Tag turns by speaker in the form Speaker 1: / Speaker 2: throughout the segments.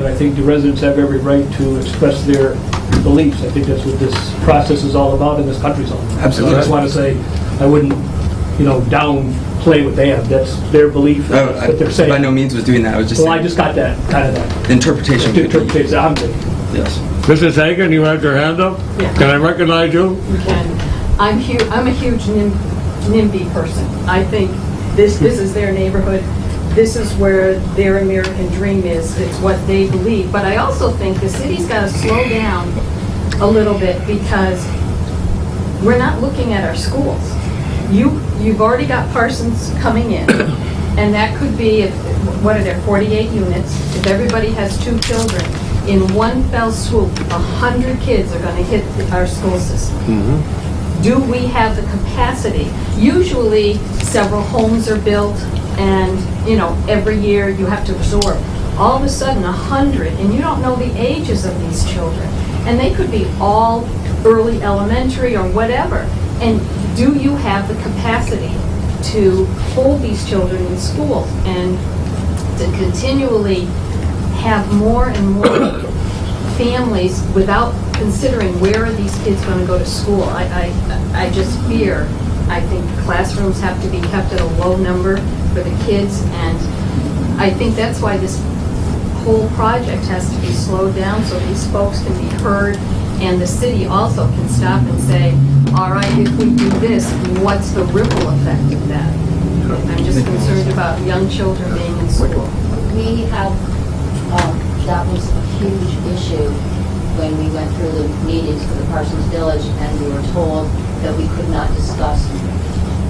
Speaker 1: And I think the residents have every right to express their beliefs. I think that's what this process is all about and this country's all about.
Speaker 2: Absolutely.
Speaker 1: I just want to say, I wouldn't, you know, downplay what they have. That's their belief,
Speaker 2: Oh,
Speaker 1: that's
Speaker 2: I-
Speaker 1: what they're saying.
Speaker 2: By no means was doing that, I was just
Speaker 1: Well, I
Speaker 2: saying,
Speaker 1: just got that, kind of that,
Speaker 2: the interpretation. could
Speaker 1: interpretation
Speaker 2: be-
Speaker 1: I'm thinking.
Speaker 2: Yes.
Speaker 3: Mrs. Hagan, you had your hand up?
Speaker 4: Yeah.
Speaker 3: Can I recognize you?
Speaker 4: you can. I'm hu, I'm a huge Nim- NIMBY person. I think this, this is their neighborhood, this is where their American dream is, it's what they believe. But I also think the city's gotta slow down a little bit because we're not looking at our schools. You, you've already got Parsons coming in, and that could be, if what are there, 48 units? If everybody has two children, in one fell swoop, 100 kids are going to hit the- our school system do we have the capacity? Usually, several homes are built, and, you know, every year you have to absorb. All of a sudden, a hundred, and you don't know the ages of these children. And they could be all early elementary or whatever. And do you have the capacity to hold these children in schools and to continually have more and more families without considering where are these kids going to go to school. I, I, I just fear, I think classrooms have to be kept at a low number for the kids, and I think that's why this whole project has to be slowed down so these folks can be heard, and the city also can stop and say, all right, if we do this, what's the ripple effect of that? I'm just concerned about young children being in school.
Speaker 5: We have, um, that was a huge issue when we went through the meetings for the Parsons Village and we were told that we could not discuss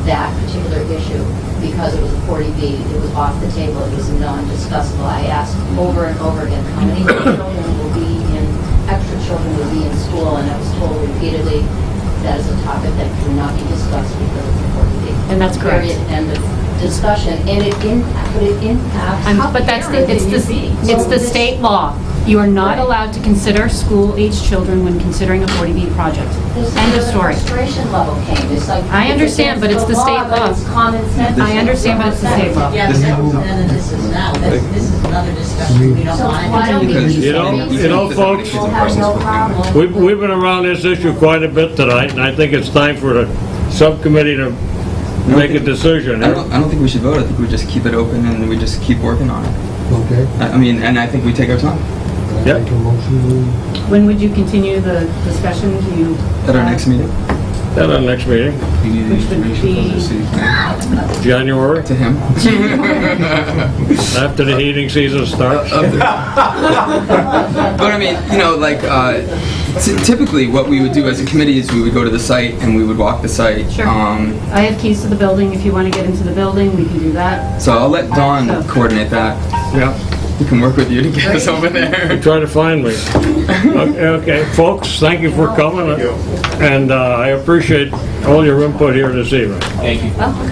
Speaker 5: that particular issue because it was a 40B, it was off the table, it was non-discussable. I asked over and over again, how many children will be in, extra children will be in school? And I was told repeatedly, that is a topic that cannot be discussed because it's a 40B.
Speaker 6: And that's correct.
Speaker 5: Period, end of discussion. And it impacts, but it impacts
Speaker 6: I'm-
Speaker 5: how
Speaker 6: But that's, the-
Speaker 5: parent
Speaker 6: it's the,
Speaker 5: can you be?
Speaker 6: it's the
Speaker 5: So
Speaker 6: state law. You are not
Speaker 5: Right.
Speaker 6: allowed to consider school-aged children when considering a 40B project.
Speaker 5: this- this
Speaker 6: End of
Speaker 5: is where
Speaker 6: story.
Speaker 5: the Frustration level came, it's like.
Speaker 6: I understand, but it's the state
Speaker 5: but
Speaker 6: law.
Speaker 5: It's common sense.
Speaker 6: I understand, but it's the state law.
Speaker 7: Yeah, but that's none of this is now, That's- this is another discussion, we don't
Speaker 5: So
Speaker 7: want.
Speaker 5: why don't we
Speaker 2: Because-
Speaker 5: do
Speaker 3: You know-
Speaker 5: something?
Speaker 3: you know, folks-
Speaker 5: We'll have no problem.
Speaker 3: We've, we've been around this issue quite a bit tonight, and I think it's time for the subcommittee to make a decision.
Speaker 2: I don't, I don't think we should vote, I think we just keep it open and we just keep working on it.
Speaker 8: Okay,
Speaker 2: I I mean, and I think we take our time
Speaker 8: can
Speaker 3: Yep.
Speaker 8: I make a motion?
Speaker 6: When would you continue the discussion? Do you?
Speaker 2: at our next meeting,
Speaker 3: At our next meeting,
Speaker 6: Which would be,
Speaker 3: January,
Speaker 2: to him.
Speaker 3: after the heating season starts.
Speaker 2: Up there. But I mean, you know, like, uh, ty- typically what we would do as a committee is we would go to the site and we would walk the site.
Speaker 6: Sure.
Speaker 2: Um,
Speaker 6: I have keys to the building. If you want to get into the building, we can do that.
Speaker 2: So I'll let Dawn coordinate that.
Speaker 3: Yeah,
Speaker 2: We can work with you to get us over there.
Speaker 3: try to find me. Okay, okay, folks, thank you for coming, and uh, I appreciate all your input here this evening.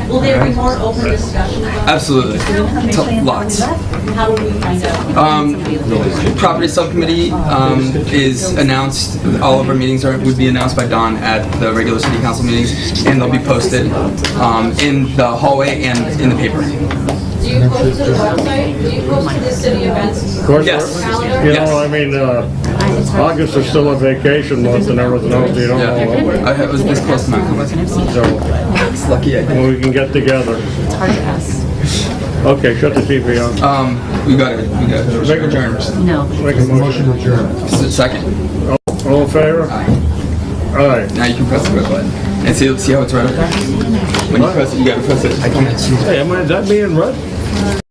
Speaker 7: Will there be more open discussion about
Speaker 2: Absolutely. T- Lots.
Speaker 7: it? How would we find out?
Speaker 2: Um, property subcommittee, um, is announced, all of our meetings are, would be announced by Don at the regular city council meetings, and they'll be posted, um, in the hallway and in the paper.
Speaker 4: Do you go to the website? Do you go to the city events?
Speaker 3: Of course,
Speaker 2: Yes.
Speaker 3: You know, I mean, uh, August is still a vacation month and everything else, you don't know what-
Speaker 2: Yeah. I was this close to not coming.
Speaker 3: so
Speaker 2: It's lucky I did.
Speaker 3: when we can get together.
Speaker 6: It's hard to ask.
Speaker 3: Okay, shut the TV off.
Speaker 8: Uh,
Speaker 2: Um, we got it, we got it.
Speaker 3: Make a-
Speaker 2: Adjourned.
Speaker 6: No.
Speaker 3: Make a motion.
Speaker 8: Motion adjourned.
Speaker 2: S- Second.
Speaker 3: All in favor? Aye.
Speaker 2: Now you can press the red button. And see, see how it's right up there? When you press it, you gotta press it. I can't see.
Speaker 3: Hey, am I, is that me in red?